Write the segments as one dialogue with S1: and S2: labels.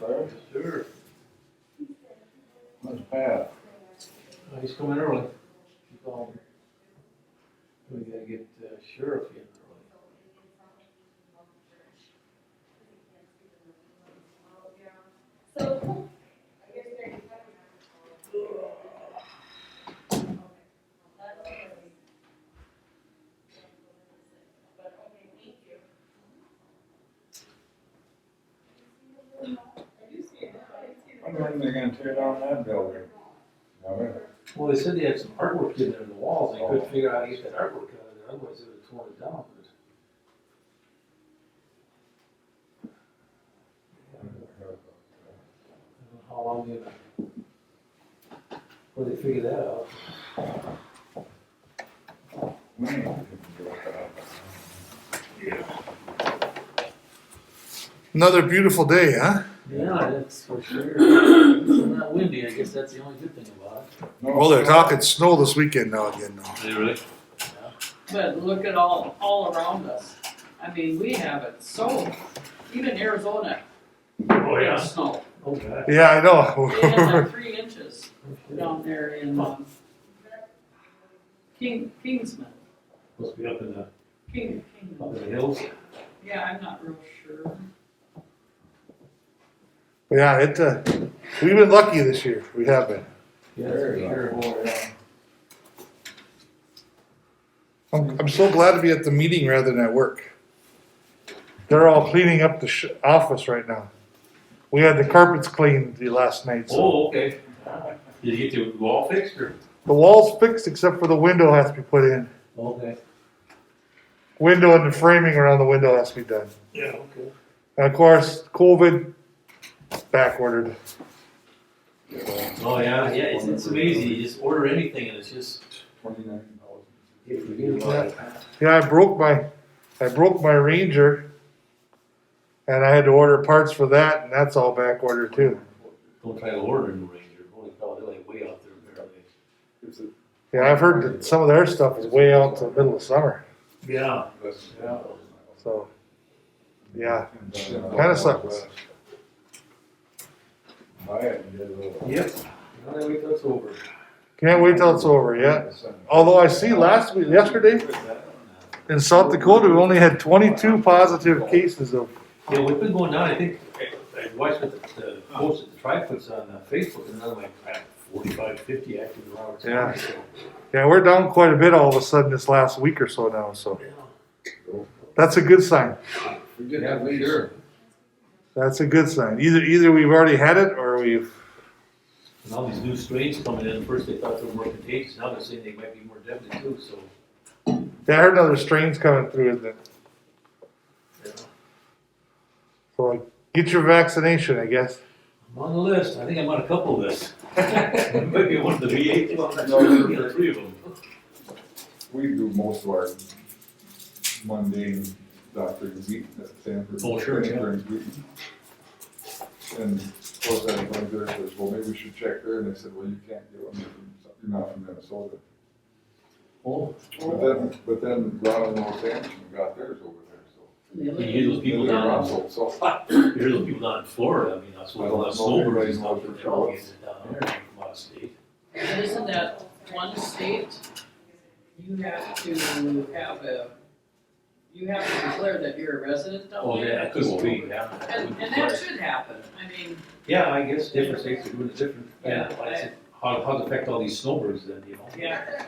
S1: there.
S2: Sure.
S1: That's Pat.
S3: Uh, He's coming early. He called me. We gotta get uh, sheriff in early.
S1: I wonder when they're gonna tear down that building. I mean,
S3: Well, they said they had some artwork in there in the walls. They couldn't figure out how to get that artwork out of there, otherwise they would have torn it down. But I don't know How long they, well, they figure that out.
S1: we need to do it.
S2: Another beautiful day, huh?
S3: Yeah, that's for sure. It's not windy, I guess that's the only good thing about it.
S1: No,
S2: Well, they're
S1: it's-
S2: talking snow this weekend now again though.
S4: But look at all, all around us. I mean, we have it so, even Arizona.
S5: Oh,
S4: has Snow.
S3: Oh, God.
S2: Yeah, I
S4: They had
S2: know.
S4: like three inches
S3: Yeah.
S4: down there in, um, King, Kingsman,
S3: Must be up in the,
S4: King,
S3: up
S4: Kingman.
S3: in the hills.
S4: Yeah, I'm not real sure.
S2: Yeah, it, uh, we've been lucky this year. We have been.
S3: Yeah, that's for sure.
S2: I'm, I'm so glad to be at the meeting rather than at work. They're all cleaning up the sh- office right now. We had the carpets cleaned the last night, so.
S5: Oh, okay. Did you get the wall fixed or?
S2: The wall's fixed except for the window has to be put in.
S3: Okay.
S2: Window and the framing around the window has to be done.
S3: Yeah, okay.
S2: And of course, COVID back ordered.
S5: Oh, yeah, yeah, it's, it's amazing, you just order anything and it's just.
S1: Twenty-nine dollars.
S3: If we get that,
S2: Yeah, I broke my, I broke my Ranger, and I had to order parts for that, and that's all back ordered too.
S5: Don't try to order in the Ranger, holy cow, they're like way out there apparently.
S1: It's a-
S2: Yeah, I've heard that some of their stuff is way out to the middle of summer.
S5: Yeah.
S1: that's-
S5: Yeah.
S2: So, yeah,
S1: Kinda
S2: sucks.
S1: Buy it and get a little-
S3: Yep. Now that we that's over.
S2: can't wait till it's over. Yeah. Although I see last week, yesterday in South Dakota, we only had 22 positive cases of.
S5: Yeah, we've been going down, I think, I I watched the, the post that the tri puts on uh, Facebook and another like crap, forty-five, fifty active in Roberts
S2: Yeah.
S5: County, so.
S2: Yeah, we're down quite a bit all of a sudden this last week or so now. So that's a good sign.
S1: We did have leads.
S2: That's a good sign. Either either we've already had it or we've.
S5: And all these new strains coming in, first they thought they were more contagious, now they're saying they might be more deadly too, so.
S2: Yeah, I heard another strain's coming through, isn't it?
S5: yeah.
S2: So like, get your vaccination, I guess.
S5: I'm on the list. I think I'm on a couple of lists. Maybe one of the VA ones.
S1: No, you're-
S5: Yeah, three of them.
S1: We do most of our mundane doctoring uh, meeting at Sanford.
S5: Oh, sure, yeah.
S1: Sanford and Wheaton. And of course, I was like, there, I says, well, maybe we should check there, and they said, well, you can't do it, you're not from Minnesota.
S5: Oh,
S1: But then, but then Ron and Los Angeles got theirs over there, so.
S4: They
S5: you
S4: live-
S5: hear those people down,
S1: So, so,
S5: you hear those people down in Florida. I mean, I suppose a lot of snowbirds and stuff, but they're all getting it down there from out of state.
S4: And Isn't that one state, you have to have a, you have to declare that you're a resident down
S5: Oh, yeah,
S4: there?
S5: that could be, yeah. that
S4: And,
S5: would be
S4: and that
S5: right.
S4: should happen, I mean,
S5: Yeah, I guess different states are doing it different.
S4: Yeah,
S5: Like I said, How, how to affect all these snowbirds then, you know?
S4: yeah,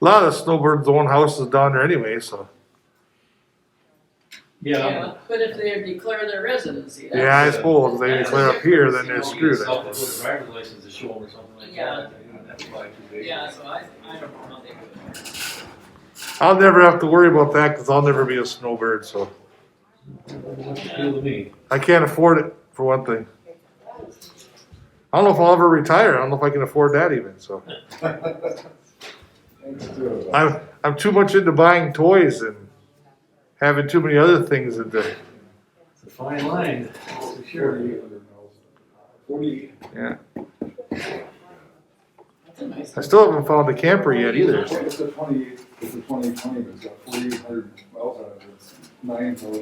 S2: A lot of snowbirds own houses down there anyway, so.
S4: yeah, but if they declare their residency, that's.
S2: Yeah, I suppose if they declare up here, then they're
S5: You
S2: screwed.
S5: get a
S2: I
S5: South
S2: suppose.
S5: Dakota driver's license to show 'em or something like
S4: Yeah.
S5: that. Yeah. That's probably too big.
S4: Yeah, so I, I don't know how they do it.
S2: I'll never have to worry about that because I'll never be a snowbird, so
S5: What's the deal with me?
S2: I can't afford it for one thing. I don't know if I'll ever retire. I don't know if I can afford that even. So
S1: thanks to, uh,
S2: I'm I'm too much into buying toys and having too many other things at the
S5: It's a fine line, that's for sure.
S1: Forty.
S2: yeah.
S4: That's a nice.
S2: I still haven't found a camper yet either.
S1: It's a twenty, it's a twenty twenty, but it's got forty-eight hundred miles on it, it's uh, nine, so